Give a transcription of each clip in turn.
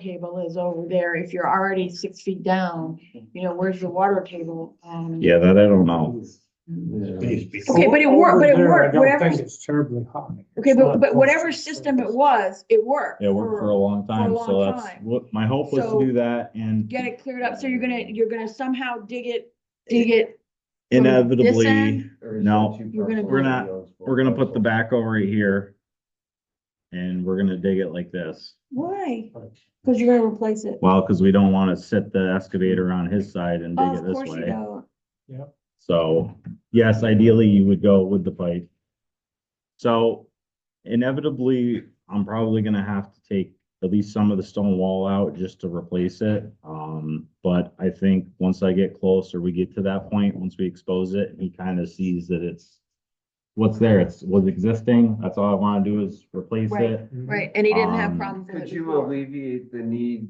table is over there, if you're already six feet down, you know, where's the water table? Um, Yeah, that I don't know. Okay, but it worked- but it worked, Over there, I whatever- don't think it's terribly hot. Okay, It's but, not but whatever close. system it was, it worked. It worked for a long time, long so that's time. what, my hope was So- to do that and Get it cleared up, so you're gonna, you're gonna somehow dig it, dig it, this inevitably, end? No, You're gonna- we're not- we're gonna put the backhoe right here. And we're gonna dig it like this. why? Cause you're gonna replace it. Well, because we don't want to set the excavator on his side and dig Oh, it Of this course you way. don't. So, yes, ideally you would go with the pipe. So inevitably, I'm probably gonna have to take at least some of the stone wall out just to replace it. Um, but I think once I get close or we get to that point, once we expose it, he kind of sees that it's what's there, it's was existing. That's all I want to do is replace Right. it. Right, and he didn't have Um, problems with Could it you before. alleviate the need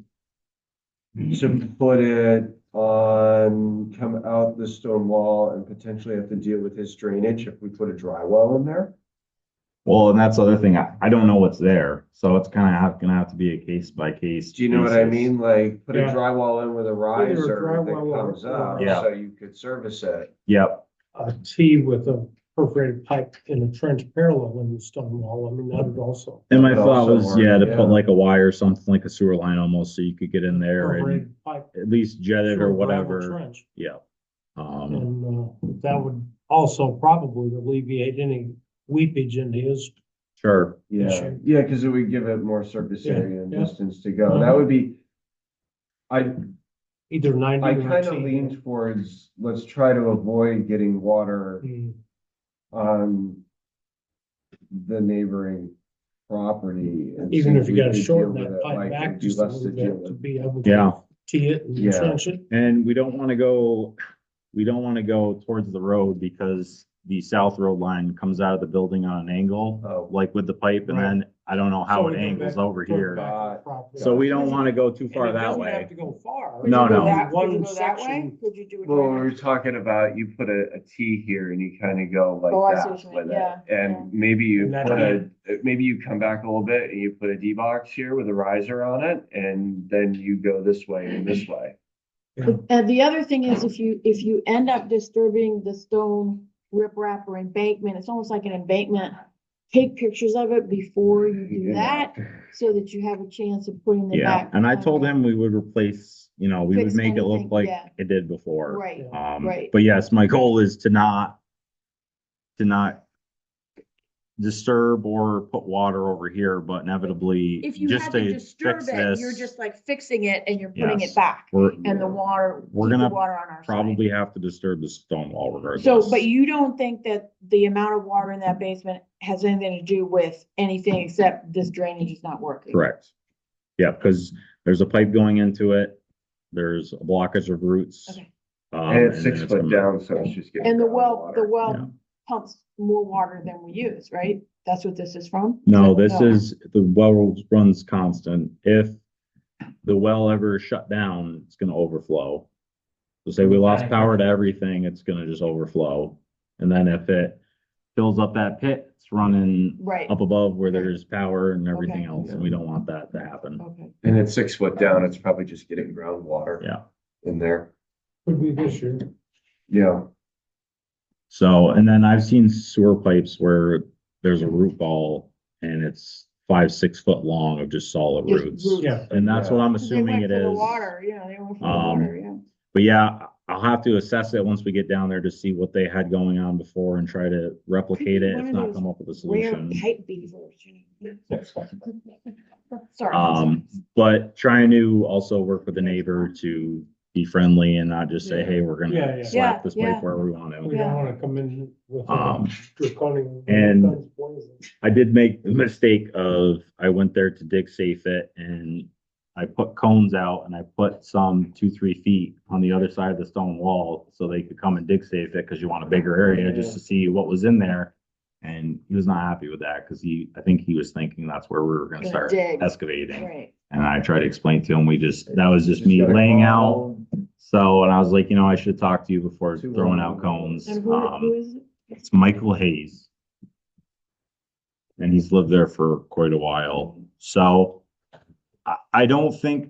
to put it on, come out the stone wall and potentially have to deal with his drainage if we put a dry well in there? Well, and that's the other thing. I, I don't know what's there, so it's kind of gonna have to be a case by case. Do you know what I basis. mean? Like, put a Yeah. dry well in with a riser that drywall or- comes up, Yeah. so you could service it. Yep, A T with a perforated pipe in a trench parallel in the stone wall, I mean, that would also. and my But thought also was, yeah, to more, yeah. put like a wire, something like a sewer line almost, so you could get in there and Perforated pipe. at least jet it through a or gravel whatever, trench. yeah. Um, And, uh, that would also probably alleviate any weepage into his, sure, Yeah, Sure. yeah, because it would give it more surface Yeah, area and yeah. Uh-huh. distance to go. That would be, I, either ninety or I T. kind of lean towards, let's try to avoid getting water Mm. on the neighboring property. and Even see if you we gotta could shorten deal with that it, pipe like, back it'd be just a less little to deal bit to with. be able yeah, to tee it and Yeah. trench it. and we don't want to go, we don't want to go towards the road because the south road line comes out of the building on an angle, uh, Oh, like with the pipe, and then I don't know So how we it go angles back- over go here. back Uh, properly. So we don't want to go too And far it that doesn't way. Have to go far. Could you No, go no. that- could you One go that way? section. Could you do it? Well, right we now? were talking about, you put a, a T here and you kind of go Oh, I like see what that you mean. with Yeah, it. And maybe you And that- put a, maybe you come back a little bit and you put a D box here with a riser on it and then you go this way and this way. And uh, the other thing is if you, if you end up disturbing the stone riprap or embankment, it's almost like an embankment. Take pictures of it before you do that, so that you have a chance of putting them Yeah, back. and I on told there. him we would replace, you know, we would Fix make it look anything, like yeah. it did before. Right, Um, right. but yes, my goal is to not, to not disturb or put water over here, but inevitably, if you just have to to disturb fix it, you're this, just like fixing it and you're putting Yes. it back. we're And the water, keep We're the gonna water on our side. probably have to disturb the stone wall regardless. So, but you don't think that the amount of water in that basement has anything to do with anything except this drainage is not working? Correct. Yeah, because there's a pipe going into it, there's a blockage of roots. Okay. um, And it's then six gonna- foot down, so it's just getting. And the ground well, water. the Yeah. well pumps more water than we use, right? That's what this is from? oh, No, this uh, is, the well runs constant. If the well ever shut down, it's gonna overflow. So say we lost power to everything, it's gonna just overflow. And then if it fills up that pit, it's running Right, up above where there's power and everything Okay. else, and we don't want that to happen. okay. And it's six foot down, it's probably just getting groundwater. Yeah. In there, Could be this year. yeah. So, and then I've seen sewer pipes where there's a root ball and it's five, six foot long of just solid Just roots. roots. Yeah. And that's what I'm They assuming went it for the is. Water, yeah, they went for the Um, water, yeah. But yeah, I'll have to assess it once we get down there to see what they had going on before and try to replicate it, One if of not those come up with a Rare solution. pipe beavers, you know. Sorry. Um, but trying to also work with the neighbor to be friendly and not just say, hey, we're Yeah, yeah. gonna Yeah, slap this yeah. pipe wherever we want We to. don't wanna come in with. a Um, draconian- and- I did make the mistake of, I went there to dig safe it and I put cones out and I put some two, three feet on the other side of the stone wall so they could come and dig safe it because you want a bigger area just to see what was in there. And he was not happy with that because he, I think he was thinking that's where we were gonna Gonna start dig. excavating. Right, And I tried to explain to him, we just, that was just me laying out. So, and I was like, you know, I should talk to you before Too throwing long. out cones. and who, who Um, is, it? it's Michael Hayes. And he's lived there for quite a while, so I, I don't think